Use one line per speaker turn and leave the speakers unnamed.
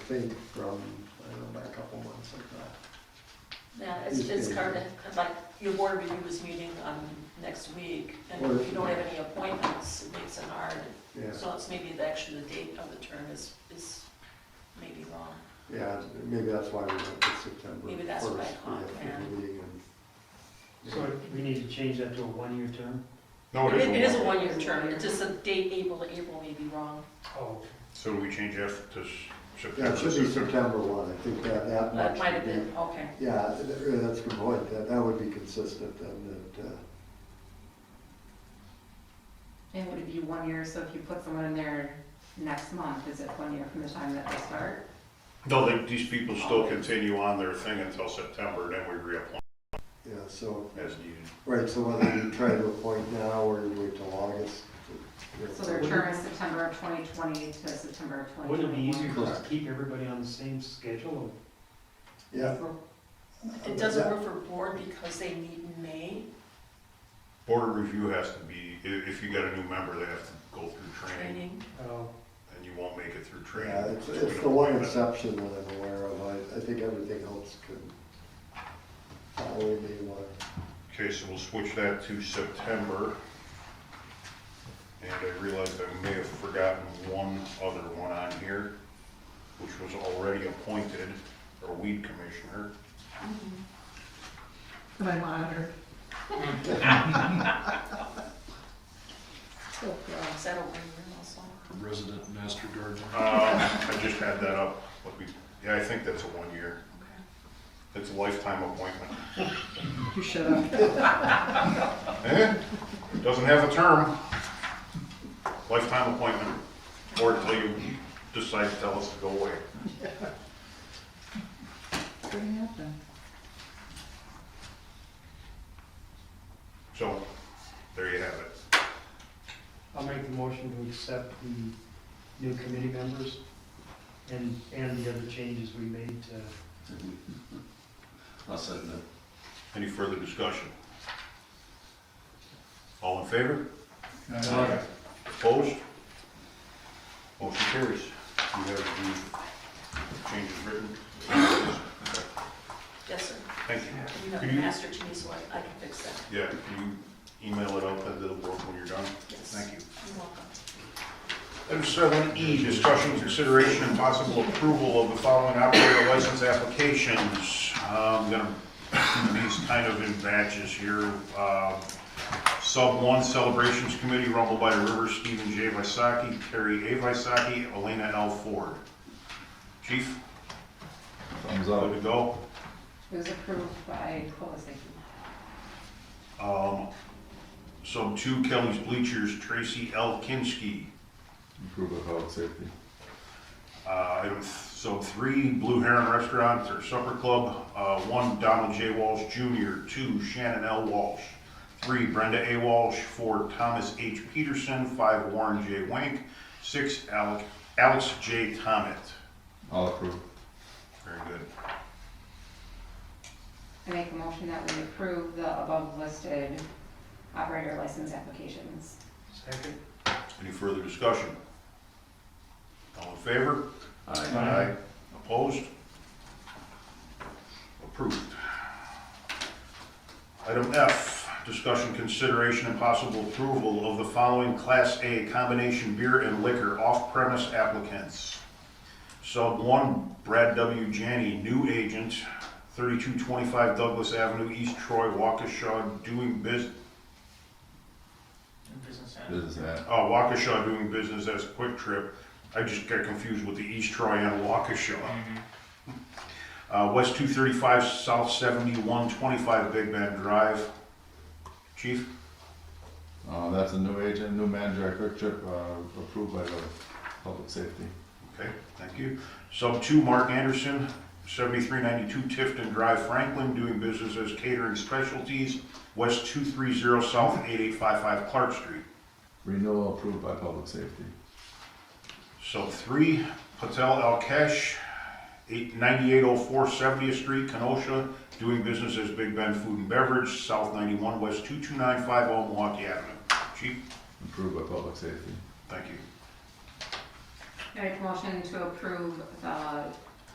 think, from, I don't know, about a couple months ago.
Yeah, it's, it's kind of, like, your board review is meeting on next week, and if you don't have any appointments, it makes it hard.
Yeah,
So it's maybe the, actually the date of the term is, is maybe wrong.
yeah, maybe that's why we went to September.
Maybe that's what I
1st,
caught,
we
yeah.
have the meeting and-
So we need to change that to a one-year term?
No, Oh, it is.
It is
a
a
one.
one-year term, it's just the date April to April may be wrong.
Oh.
So we change that to s-
Yeah,
September.
it should be September one, I think that, that much.
That might have
would be-
been, okay.
Yeah, th- th- that's a good point, that, that would be consistent then, that, uh,
And would it be one year, so if you put someone in there next month, is it one year from the time that they start?
No, they- these people still continue on their thing until September, then we reapply
yeah, so,
as needed.
right, so whether you try to appoint now or you wait till August. you know,
So their term is September of 2020 to September of 2021.
Wouldn't it be easier just
Correct.
to keep everybody on the same schedule?
Yeah.
It doesn't work for board because they meet in May,
Board review has to be, i- if you got a new member, they have to go through training,
training.
Oh,
and you won't make it through
Yeah,
training.
it's,
so we
it's
don't
the one
appoint them.
exception that I'm aware of, I, I think everything else could follow me one.
Okay, so we'll switch that to September. And I realized I may have forgotten one other one on here, which was already appointed, our weed commissioner.
My monitor. So gross.
Is that a one year also?
resident master gardener.
Um, I just had that up, but we, yeah, I think that's a one-year,
Okay.
it's a lifetime appointment.
You shut up.
Eh, doesn't have a term, lifetime appointment, or until you decide to tell us to go away.
It's gonna happen.
So, there you have it.
I'll make the motion to accept the new committee members and, and the other changes we made to
I'll second that.
Any further discussion? All in favor? Opposed? Motion carries. You have the changes written.
Yes, sir.
Thank
You
you.
know,
Can you,
master to me, so I, I can fix that.
yeah, can you email it out to the board when you're done?
Yes.
Thank you.
You're welcome.
Item seven E, discussion, consideration, and possible approval of the following operator license applications. Um, gonna, these kind of in batches here. Uh, Sub one, Celebrations Committee, Rumble by the River, Stephen J. Visaki, Terry A. Visaki, Elena L. Ford. Chief?
Thumbs
Good to go.
It was approved by, what was it?
Um, sub two, Kelly's Bleachers, Tracy L. Kinsky.
Improve the public safety.
Uh, item th- so three, Blue Heron Restaurant or Supper Club, uh, one, Donald J. Walsh Jr., two, Shannon L. Walsh, three, Brenda A. Walsh, four, Thomas H. Peterson, five, Warren J. Wank, six, Alec, Alex J. Tomet.
I'll approve.
Very good.
I make a motion that we approve the above listed operator license applications.
second.
Any further discussion? All in favor?
Aye.
Opposed? Approved. Item F, discussion, consideration, and possible approval of the following Class A combination beer and liquor off-premise applicants. Sub one, Brad W. Janney, new agent, thirty-two twenty-five Douglas Avenue, East Troy, Waukesha, doing bus,
Business ad.
uh, Waukesha doing business as Quick Trip. I just got confused with the East Troy and Waukesha. Uh, West two thirty-five, South seventy-one twenty-five Big Bend Drive. Chief,
Uh, that's a new agent, new manager at Quick Trip, uh, approved by the public safety.
okay, thank you. Sub two, Mark Anderson, seventy-three ninety-two Tifton Drive, Franklin, doing business as Catering Specialties, West two three zero, South eight eight five five Clark Street.
Renewal approved by public safety.
So three, Patel Alkesh, eight ninety-eight oh four Seventieth Street, Kenosha, doing business as Big Bend Food and Beverage, South ninety-one West two two nine five oh Milwaukee Avenue. Chief,
Approved by public safety.
thank you.
I make a motion to approve the